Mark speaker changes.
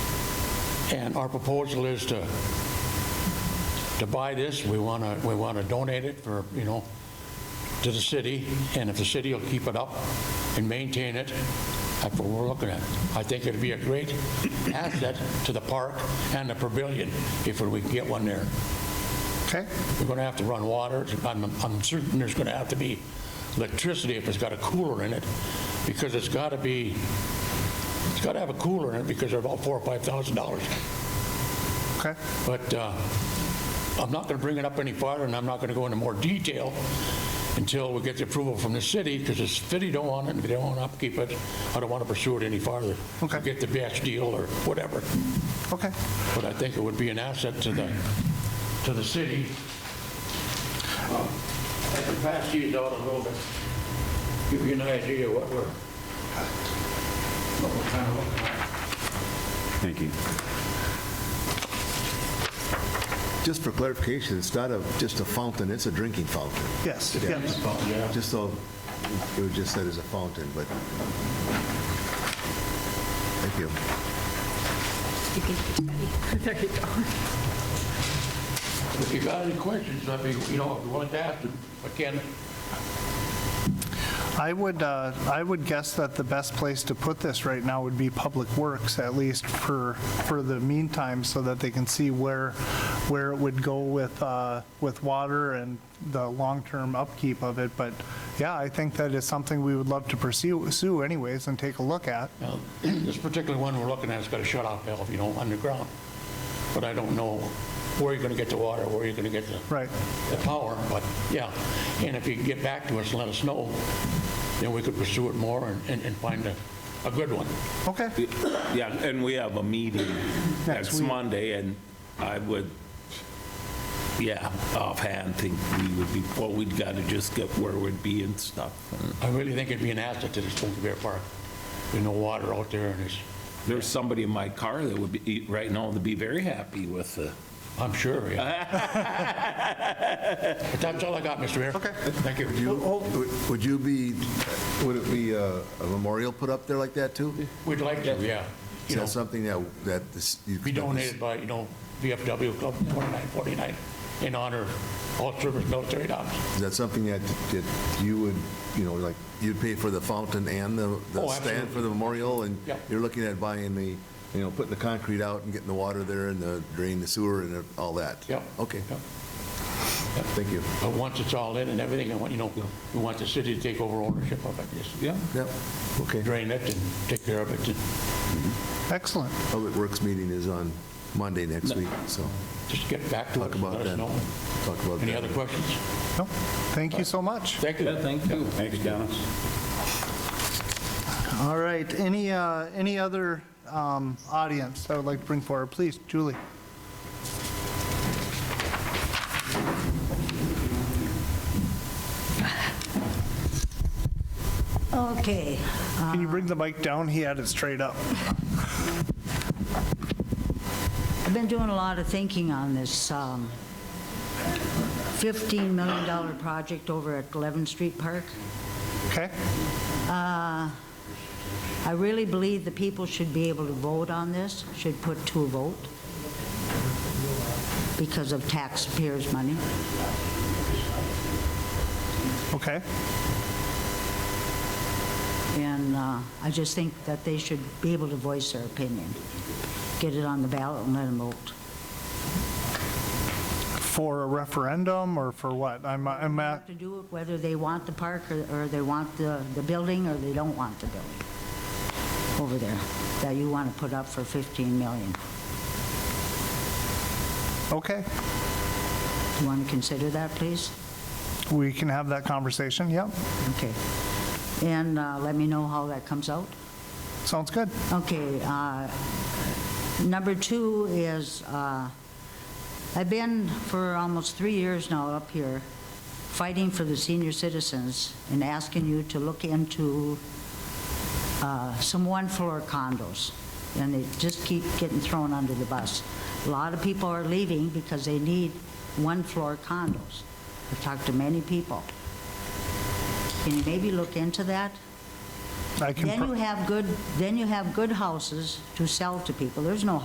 Speaker 1: And our proposal is to, to buy this, we want to, we want to donate it for, you know, to the city, and if the city will keep it up and maintain it, that's what we're looking at. I think it'd be a great asset to the park and the pavilion if we can get one there.
Speaker 2: Okay,
Speaker 1: We're going to have to run water. I'm I'm certain there's going to have to be electricity if it's got a cooler in it, because it's got to be, it's got to have a cooler in it because they're about four or $5,000.
Speaker 2: okay.
Speaker 1: But uh, I'm not going to bring it up any farther, and I'm not going to go into more detail until we get the approval from the city, because the city don't want it, and if they don't want to upkeep it, I don't want to pursue it any farther.
Speaker 2: Okay.
Speaker 1: Get the best deal or whatever.
Speaker 2: Okay.
Speaker 1: But I think it would be an asset to the, to the city. Uh, I can pass these out a little bit, give you an idea what we're, what we're kind of looking at.
Speaker 3: Thank you.
Speaker 4: Just for clarification, it's not a, just a fountain, it's a drinking fountain.
Speaker 2: Yes, yes.
Speaker 4: Just so, it was just said as a fountain, but. Thank you.
Speaker 5: There you go.
Speaker 1: If you got any questions, I'd be, you know, if you wanted to ask them, I can.
Speaker 2: I would, uh, I would guess that the best place to put this right now would be Public Works, at least for, for the meantime, so that they can see where, where it would go with, uh, with water and the long-term upkeep of it. But yeah, I think that is something we would love to pursue pursue anyways and take a look at.
Speaker 1: Now, This particular one we're looking at has got a shut-off valve, you know, underground. But I don't know where you're going to get the water, where you're going to get the.
Speaker 2: Right.
Speaker 1: The power, but yeah. And if you can get back to us and let us know, then we could pursue it more and, and- and find a, a good one.
Speaker 2: Okay,
Speaker 3: Yeah, and we have a meeting next
Speaker 2: week.
Speaker 3: Monday, and I would, yeah, offhand, think we would be, well, we'd got to just get where we'd be and stuff. And
Speaker 1: I really think it'd be an asset to the Spokane Bear Park. There's no water out there and it's,
Speaker 3: There's somebody in my car that would be, right now, would be very happy with the,
Speaker 1: I'm sure,
Speaker 3: Uh,
Speaker 1: yeah. But that's all I got, Mr. Mayor. Okay. Thank you.
Speaker 4: Do you- would- Would you be, would it be uh, a memorial put up there like that too?
Speaker 1: We'd like to, yeah.
Speaker 4: Is
Speaker 1: You know,
Speaker 4: that something that, that this? you-
Speaker 1: be donated by, you know, VFW Club 2949 in honor of all service military dogs.
Speaker 4: Is that something that, that you would, you know, like, you'd pay for the fountain and the, the
Speaker 1: Oh,
Speaker 4: stand
Speaker 1: absolutely.
Speaker 4: for the memorial? And
Speaker 1: Yeah.
Speaker 4: you're looking at buying the, you know, putting the concrete out and getting the water there and the drain, the sewer and all that?
Speaker 1: Yeah.
Speaker 4: Okay,
Speaker 1: Yeah.
Speaker 4: thank you.
Speaker 1: But once it's all in and everything, I want, you know, we want the city to take over ownership of it, just
Speaker 3: yeah,
Speaker 4: Yep, okay.
Speaker 1: drain it and take care of it, and
Speaker 2: excellent.
Speaker 4: Public Works meeting is on Monday next week, so
Speaker 1: just get back to
Speaker 4: talk
Speaker 1: us and
Speaker 4: about
Speaker 1: let
Speaker 4: that.
Speaker 1: us know.
Speaker 4: Talk about that.
Speaker 1: Any other questions?
Speaker 2: No, Thank you so much.
Speaker 1: Thank you.
Speaker 3: thank you. Thanks, Dennis.
Speaker 2: All right, any, uh, any other um, audience that would like to bring forward, please, Julie?
Speaker 6: Okay,
Speaker 2: Can you bring the mic down? He had it straight up.
Speaker 6: I've been doing a lot of thinking on this um, $15 million project over at 11th Street Park.
Speaker 2: Okay,
Speaker 6: I really believe the people should be able to vote on this, should put to a vote because of taxpayers' money.
Speaker 2: okay,
Speaker 6: And uh, I just think that they should be able to voice their opinion. Get it on the ballot and let them vote.
Speaker 2: for a referendum or for what? I'm, I'm
Speaker 6: Have
Speaker 2: at,
Speaker 6: to do it whether they want the park or or they want the the building or they don't want the building over there that you want to put up for 15 million.
Speaker 2: okay,
Speaker 6: Do you want to consider that, please?
Speaker 2: we can have that conversation, yep,
Speaker 6: Okay. And uh, let me know how that comes out.
Speaker 2: sounds good.
Speaker 6: Okay, uh, number two is, uh, I've been for almost three years now up here fighting for the senior citizens and asking you to look into uh, some one-floor condos, and they just keep getting thrown under the bus. A lot of people are leaving because they need one-floor condos. I've talked to many people. Can you maybe look into that?
Speaker 2: I can.
Speaker 6: Then
Speaker 2: pro-
Speaker 6: you have good, then you have good houses to sell to people. There's no